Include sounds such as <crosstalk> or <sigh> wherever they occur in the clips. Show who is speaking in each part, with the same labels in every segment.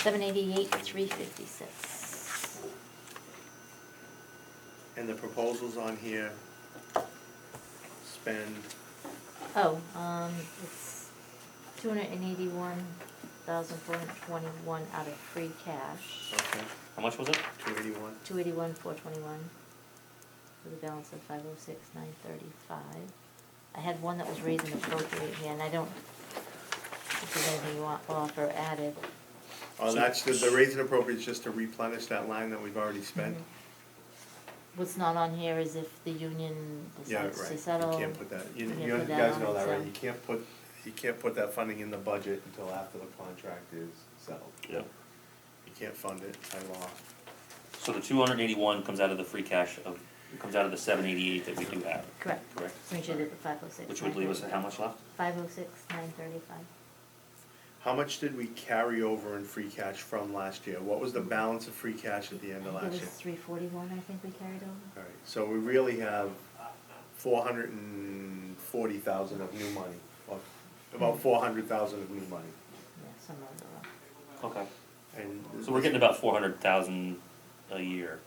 Speaker 1: Seven eighty-eight, three fifty-six.
Speaker 2: And the proposals on here spend,
Speaker 1: Oh, um, it's two hundred and eighty-one thousand four hundred twenty-one out of free cash,
Speaker 2: okay,
Speaker 3: How much was it?
Speaker 2: two eighty-one,
Speaker 1: two eighty-one, four twenty-one, with a balance of five oh six, nine thirty-five. I had one that was raised and appropriate here, and I don't, if there's anything you want off or added.
Speaker 2: oh, that's, the, the raise and appropriate is just to replenish that line that we've already spent?
Speaker 1: Mm-hmm. What's not on here is if the union
Speaker 2: Yeah,
Speaker 1: decides
Speaker 2: right,
Speaker 1: to
Speaker 2: you
Speaker 1: settle.
Speaker 2: can't put that, you,
Speaker 1: we can
Speaker 2: you
Speaker 1: put that
Speaker 2: guys
Speaker 1: on
Speaker 2: know that,
Speaker 1: it,
Speaker 2: right,
Speaker 1: so-
Speaker 2: you can't put, you can't put that funding in the budget until after the contract is settled.
Speaker 3: Yeah.
Speaker 2: You can't fund it by law.
Speaker 3: So the two hundred eighty-one comes out of the free cash of, comes out of the seven eighty-eight that we do have,
Speaker 1: Correct,
Speaker 3: correct?
Speaker 1: so we should have the five oh six.
Speaker 3: Which would leave us at how much left?
Speaker 1: Five oh six, nine thirty-five.
Speaker 2: How much did we carry over in free cash from last year? What was the balance of free cash at the end of
Speaker 1: It
Speaker 2: last
Speaker 1: was
Speaker 2: year?
Speaker 1: three forty-one, I think we carried over.
Speaker 2: Alright, so we really have four hundred and forty thousand of new money, or about four hundred thousand of new money.
Speaker 1: Yeah, somewhere around.
Speaker 3: Okay.
Speaker 2: And
Speaker 3: So we're getting about four hundred thousand a year.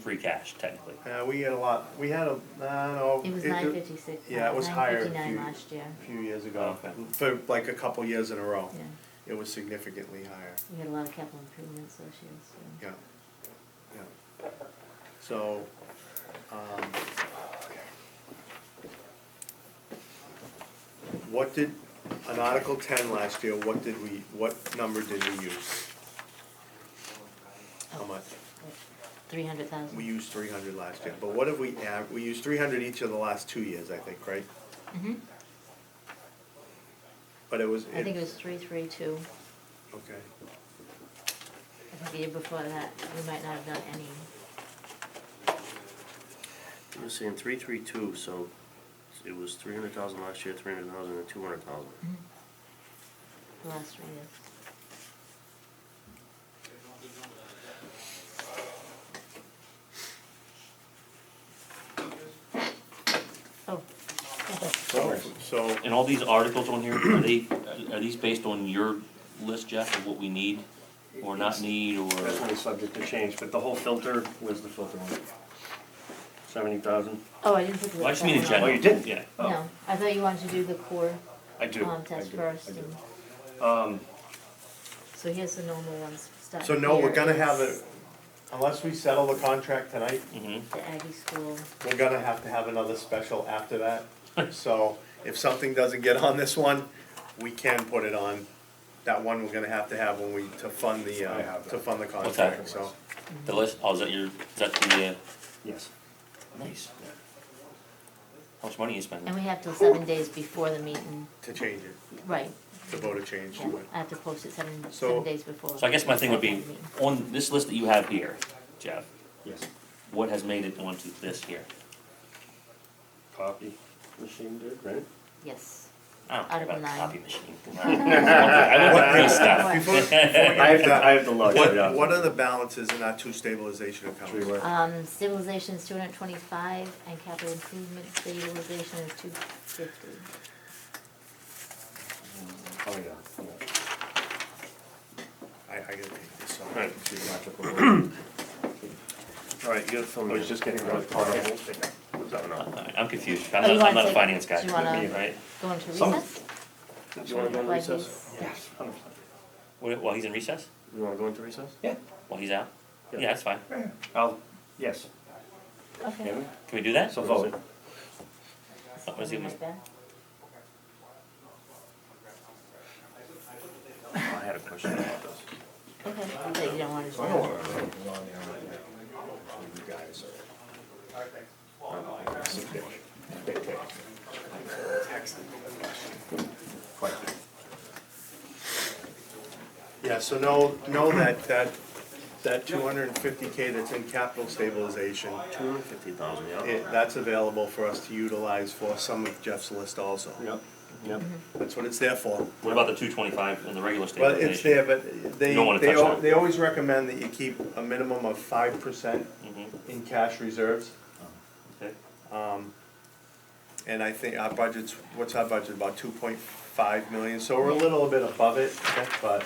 Speaker 3: Free cash technically.
Speaker 2: Uh, we had a lot, we had a, I don't know.
Speaker 1: It was nine fifty-six.
Speaker 2: Yeah, it was higher a few,
Speaker 1: Nine fifty-nine last year,
Speaker 2: few years ago,
Speaker 3: Okay.
Speaker 2: for like a couple years in a row.
Speaker 1: yeah.
Speaker 2: It was significantly higher,
Speaker 1: We had a lot of capital improvements this year, so.
Speaker 2: yeah, yeah. So, um. What did, on Article ten last year, what did we, what number did we use? How much?
Speaker 1: Oh, Three hundred thousand.
Speaker 2: We used three hundred last year, but what have we av- we used three hundred each of the last two years, I think, right?
Speaker 1: Mm-hmm,
Speaker 2: But it was.
Speaker 1: I think it was three three two.
Speaker 2: Okay,
Speaker 1: I think the year before that, we might not have done any.
Speaker 4: You were saying three, three, two, so it was three hundred thousand last year, three hundred thousand and two hundred thousand.
Speaker 1: The last three years. Oh.
Speaker 2: so, so,
Speaker 3: And all these articles on here, are they, are these based on your list, Jeff, of what we need or not need or?
Speaker 4: That's only subject to change, but the whole filter, where's the filter one? Seventy thousand?
Speaker 1: Oh, I didn't put the.
Speaker 3: Well, I just mean in
Speaker 1: that
Speaker 3: general.
Speaker 1: one
Speaker 4: Oh, you did?
Speaker 3: Yeah.
Speaker 1: on. No, I thought you wanted to do the core,
Speaker 4: I do.
Speaker 1: um,
Speaker 4: I
Speaker 1: test
Speaker 4: do,
Speaker 1: first.
Speaker 4: I do.
Speaker 1: and-
Speaker 4: Um,
Speaker 1: So here's the normal ones, starting
Speaker 2: so no, we're
Speaker 1: here
Speaker 2: gonna have
Speaker 1: is
Speaker 2: it, unless we settle the contract tonight,
Speaker 3: Mm-hmm.
Speaker 1: The Aggie School,
Speaker 2: we're gonna have to have another special after that. <laughs> So if something doesn't get on this one, we can put it on. That one we're gonna have to have when we, to fund the,
Speaker 4: I
Speaker 2: uh,
Speaker 4: have
Speaker 2: to
Speaker 4: that.
Speaker 2: fund the contract,
Speaker 3: Okay.
Speaker 2: so.
Speaker 3: The list, oh, is that your, is that the, uh,
Speaker 4: yes.
Speaker 3: nice. How much money you spending?
Speaker 1: and we have till seven days before the meeting,
Speaker 2: To change it,
Speaker 1: right,
Speaker 2: to vote a change
Speaker 1: yeah,
Speaker 2: to it.
Speaker 1: I have to post it seven,
Speaker 2: So-
Speaker 1: seven days before.
Speaker 3: So I guess my thing would be, on this list that you have here, Jeff,
Speaker 4: Yes.
Speaker 3: what has made it onto this here?
Speaker 4: Copy machine did, right?
Speaker 1: Yes,
Speaker 3: I don't care
Speaker 1: Article
Speaker 3: about a
Speaker 1: nine.
Speaker 3: copy machine. <laughs> I don't
Speaker 2: <laughs>
Speaker 3: need stuff.
Speaker 2: Before- before we get
Speaker 4: I have
Speaker 2: to
Speaker 4: the,
Speaker 2: that,
Speaker 4: I have the luxury,
Speaker 2: What,
Speaker 4: yeah.
Speaker 2: what are the balances in our two stabilization
Speaker 4: Three
Speaker 2: accounts?
Speaker 4: what?
Speaker 1: um, civilization's two hundred and twenty-five, and capital improvements, the utilization is two fifty.
Speaker 4: Oh, yeah, yeah.
Speaker 2: I, I gotta take this off.
Speaker 4: Alright, so
Speaker 2: <clears throat>
Speaker 4: you're not gonna- Alright, you gotta film
Speaker 2: I was just getting rid of
Speaker 3: Alright, I'm confused, I'm
Speaker 1: Oh, you
Speaker 3: not,
Speaker 1: wanna
Speaker 3: I'm not a
Speaker 1: take-
Speaker 3: finance guy,
Speaker 1: do you wanna-
Speaker 3: me, right?
Speaker 1: Go into
Speaker 4: Some-
Speaker 1: recess?
Speaker 4: You wanna go into
Speaker 1: Like
Speaker 4: recess?
Speaker 1: this?
Speaker 4: Yes. hundred percent.
Speaker 3: Wh- While he's in recess,
Speaker 4: You wanna go into recess?
Speaker 5: Yeah.
Speaker 3: while he's out?
Speaker 4: Yeah.
Speaker 3: Yeah, that's fine,
Speaker 4: I'll, yes.
Speaker 1: Okay.
Speaker 4: Can
Speaker 3: can we do that?
Speaker 4: So vote.
Speaker 3: What was Oh, he-
Speaker 1: Right back.
Speaker 4: I had a question about this.
Speaker 1: Okay, I thought you don't wanna do
Speaker 5: I
Speaker 1: that.
Speaker 2: Yeah, so know, know that, that, that two hundred and fifty K that's in capital stabilization,
Speaker 4: Two hundred fifty thousand, yeah.
Speaker 2: it, that's available for us to utilize for some of Jeff's list also.
Speaker 4: Yep, yep.
Speaker 2: That's what it's there for.
Speaker 3: What about the two twenty-five in the regular state?
Speaker 2: Well, it's there, but they,
Speaker 3: You don't wanna
Speaker 2: they,
Speaker 3: touch
Speaker 2: al-
Speaker 3: that.
Speaker 2: they always recommend that you keep a minimum of five percent
Speaker 3: Mm-hmm,
Speaker 2: in cash reserves.
Speaker 3: okay,
Speaker 2: Um, and I think our budget's, what's our budget, about two point five million, so we're a
Speaker 1: Yeah.
Speaker 2: little bit above it, but